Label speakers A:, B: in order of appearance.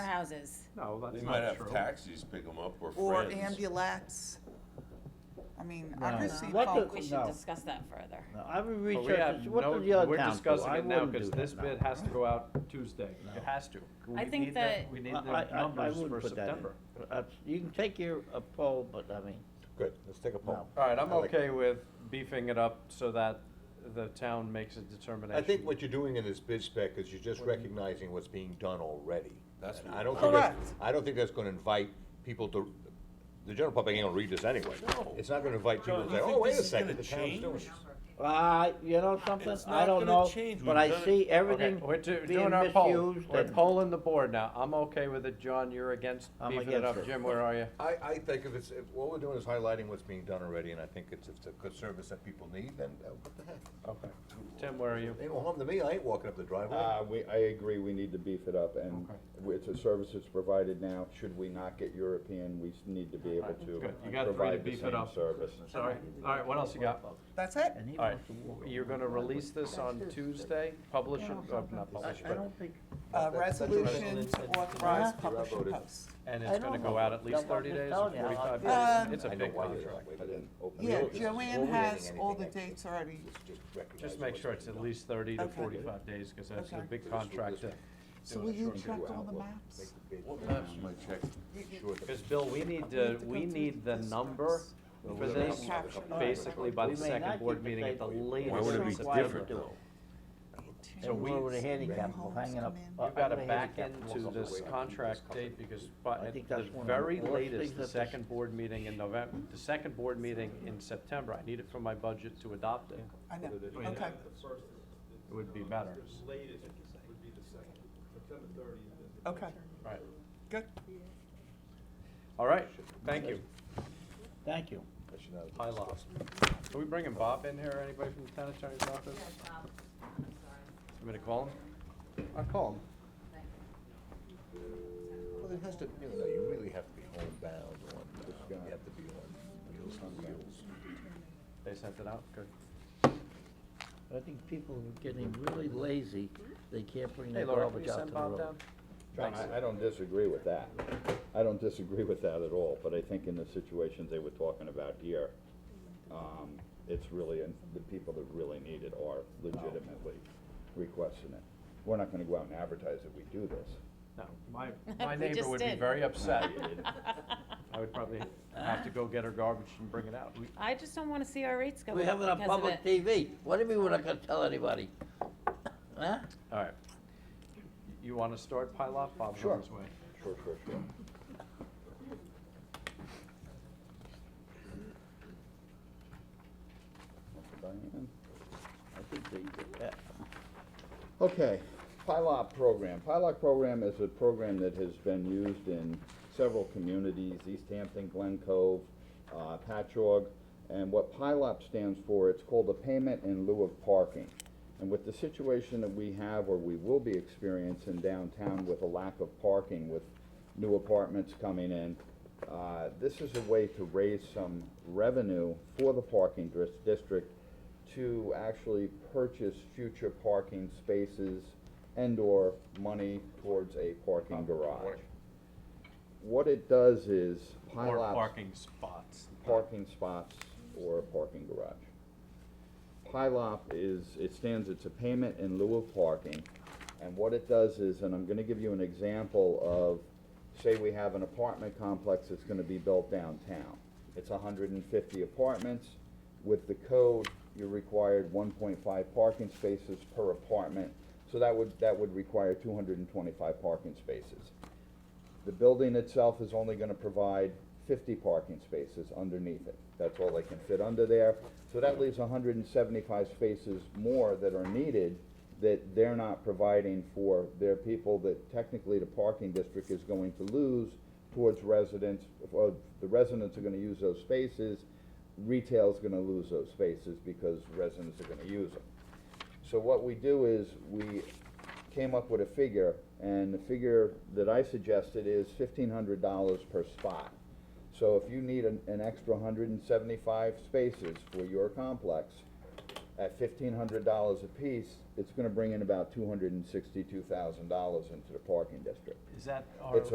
A: houses.
B: No,
C: They
B: that's
C: might
B: not
C: have
B: true.
C: taxis pick them up or
D: Or
C: friends.
D: ambulance. I mean, I've
E: No.
D: received
E: What
D: phone
E: the-
A: We
D: calls.
A: should
E: No.
A: discuss that further.
E: No, I would
B: But we
E: research,
B: have
E: this. what
B: no-
E: does the other
B: we're
E: town do?
B: discussing
E: I
B: it now
E: wouldn't do
B: because this
E: that, no.
B: bid has to go out Tuesday.
E: No.
B: It has to.
A: I
B: We
A: think
B: need the-
A: that-
B: We
E: I,
B: need
E: I,
B: the
E: I- I
B: numbers
E: wouldn't
B: for
E: put that in.
B: September.
E: Uh, You can take your, a poll, but I mean,
F: Good, let's take a poll.
B: All right, I'm
F: I like it.
B: okay with beefing it up so that the town makes a determination.
F: I think what you're doing in this bid spec is you're just recognizing what's being done already.
C: That's
F: And
C: what-
F: I don't think that's-
D: Correct.
F: I don't think that's gonna invite people to, the general public ain't gonna read this anyway.
C: No.
F: It's not gonna invite people
C: John,
F: to
C: you
F: say,
C: think
F: oh, wait
C: this
F: a
C: is
F: second,
C: gonna
F: the town's doing
C: change?
F: it."
E: uh, you know something?
C: It's
E: I
C: not
E: don't
C: gonna
E: know,
C: change.
E: but
C: We've
E: I
C: done it.
E: see
B: Okay,
E: everything
B: we're do-
E: being
B: doing our poll.
E: misused
B: We're
E: and-
B: polling the board now. I'm okay with it, John, you're against
E: I'm
B: beefing it
E: against
B: up.
E: it.
B: Jim, where are you?
F: I, I think if it's, if what we're doing is highlighting what's being done already, and I think it's, it's a good service that people need, then uh, what the heck?
B: Okay. Tim, where are you?
F: Ain't no harm to me, I ain't walking up the driveway.
G: Uh, we, I agree, we need to beef it up, and it's a service that's provided now, should we not get European, we s- need to be able
B: Good. You
G: to
B: got three to
G: provide the
B: beef it
G: same
B: up.
G: service.
B: Sorry. All right, what else you got?
D: That's it.
E: And he
B: All right,
E: wants to walk
B: you're
E: around.
B: gonna release this on Tuesday, publish it, oh, not
E: I,
B: publish
E: I
B: it,
E: don't think,
D: Uh,
F: That's- that's a
D: resolution
F: resolution.
D: authorize
F: Yeah.
D: publication
F: Voted.
D: posts.
B: and
E: I
B: it's gonna
E: don't
B: go
E: know.
B: out at least
E: That's what I'm
B: thirty
E: just
B: days or
E: telling you. I
B: forty-five
D: like
B: days.
D: this.
B: It's a
F: I know
B: big
F: why you're
B: contract.
F: like, but then-
D: Yeah,
F: Well,
D: Joanne
F: we're
D: has
F: reading
D: all
F: anything
D: the
F: extra.
D: dates already.
F: Just- just recognize
B: Just make
F: what's
B: sure it's at
F: being done.
B: least thirty to
D: Okay.
B: forty-five days, cause that's a
D: Okay.
B: big
F: This will-
B: contract.
F: this-
D: So will you check all the maps?
C: What maps am I checking?
F: Sure that-
B: Cause Bill, we need,
D: We
B: uh,
D: have to go
B: we
D: through
B: need the
D: this
B: number
D: first.
B: for
F: Yeah.
B: this
D: Capture.
B: basically by
E: We
B: the
E: may not
B: second board
E: get the
B: meeting at the
E: paper. Why
B: latest.
C: Why would it be
B: in September.
C: different though?
E: so we were handicapped,
D: Manholes
E: hanging up.
D: come in.
E: uh,
B: You've gotta
E: over
B: back
E: handicap
B: into
E: walls.
B: this contract date because by,
E: I
B: at
E: think
B: the
E: that's one of the
B: very
E: worst things
B: latest,
E: that
B: the
E: this-
B: second board meeting in November, the second board meeting in September, I need it for my budget to adopt it.
D: I know,
B: mean,
D: okay.
B: It would be better.
D: Okay,
B: Right.
D: good.
B: All right, thank you.
E: Thank you.
F: I should not have
B: Hi,
F: discussed.
B: Lost. Are we bringing Bob in here, anybody from the town attorney's office? You want me to call him? I'll call him.
F: Well, it has to, you know, you really have to be homebound on, uh, you have to be on wheels on wheels.
B: They sent it out, good.
E: I think people are getting really lazy, they can't bring
B: Hey
E: their
B: Laura, can
E: garbage
B: you
E: out to
B: send
E: the
B: Bob
E: road.
B: down?
G: John, I, I don't disagree with that, I don't disagree with that at all, but I think in the situations they were talking about here, um, it's really, and the people that really need it are legitimately requesting it. We're not gonna go out and advertise that we do this.
B: No, my, my
A: We
B: neighbor
A: just
B: would be
A: did.
B: very upset.
G: You didn't.
B: I would probably have to go get her garbage and bring it out. We-
A: I just don't wanna see our rates go up
E: We have it on
A: because of
E: public
A: it.
E: TV, what do you mean we're not gonna tell anybody? Huh?
B: All right. You want to start pilot? Bob's on his way.
F: Sure, sure, sure.
G: Diane? I think they did that. Okay, PILOT program. PILOT program is a program that has been used in several communities, East Hampton, Glen Cove, uh, Patchogue. And what PILOT stands for, it's called a payment in lieu of parking. And with the situation that we have, or we will be experiencing downtown with a lack of parking with new apartments coming in, uh, this is a way to raise some revenue for the parking dris- district to actually purchase future parking spaces and/or money towards a parking garage. What it does is
B: Or
G: pile up
B: parking spots.
G: parking spots or a parking garage. PILOP is, it stands, it's a payment in lieu of parking, and what it does is, and I'm gonna give you an example of, say we have an apartment complex that's gonna be built downtown. It's hundred and fifty apartments, with the code, you're required one point five parking spaces per apartment, so that would, that would require two hundred and twenty-five parking spaces. The building itself is only gonna provide fifty parking spaces underneath it. That's all they can fit under there. So that leaves hundred and seventy-five spaces more that are needed that they're not providing for their people that technically the parking district is going to lose towards residents, or the residents are gonna use those spaces, retail's gonna lose those spaces because residents are gonna use them. So what we do is, we came up with a figure, and the figure that I suggested is fifteen hundred dollars per spot. So if you need an, an extra hundred and seventy-five spaces for your complex, at fifteen hundred dollars apiece, it's gonna bring in about two hundred and sixty-two thousand dollars into the parking district.
B: Is that our?
G: It's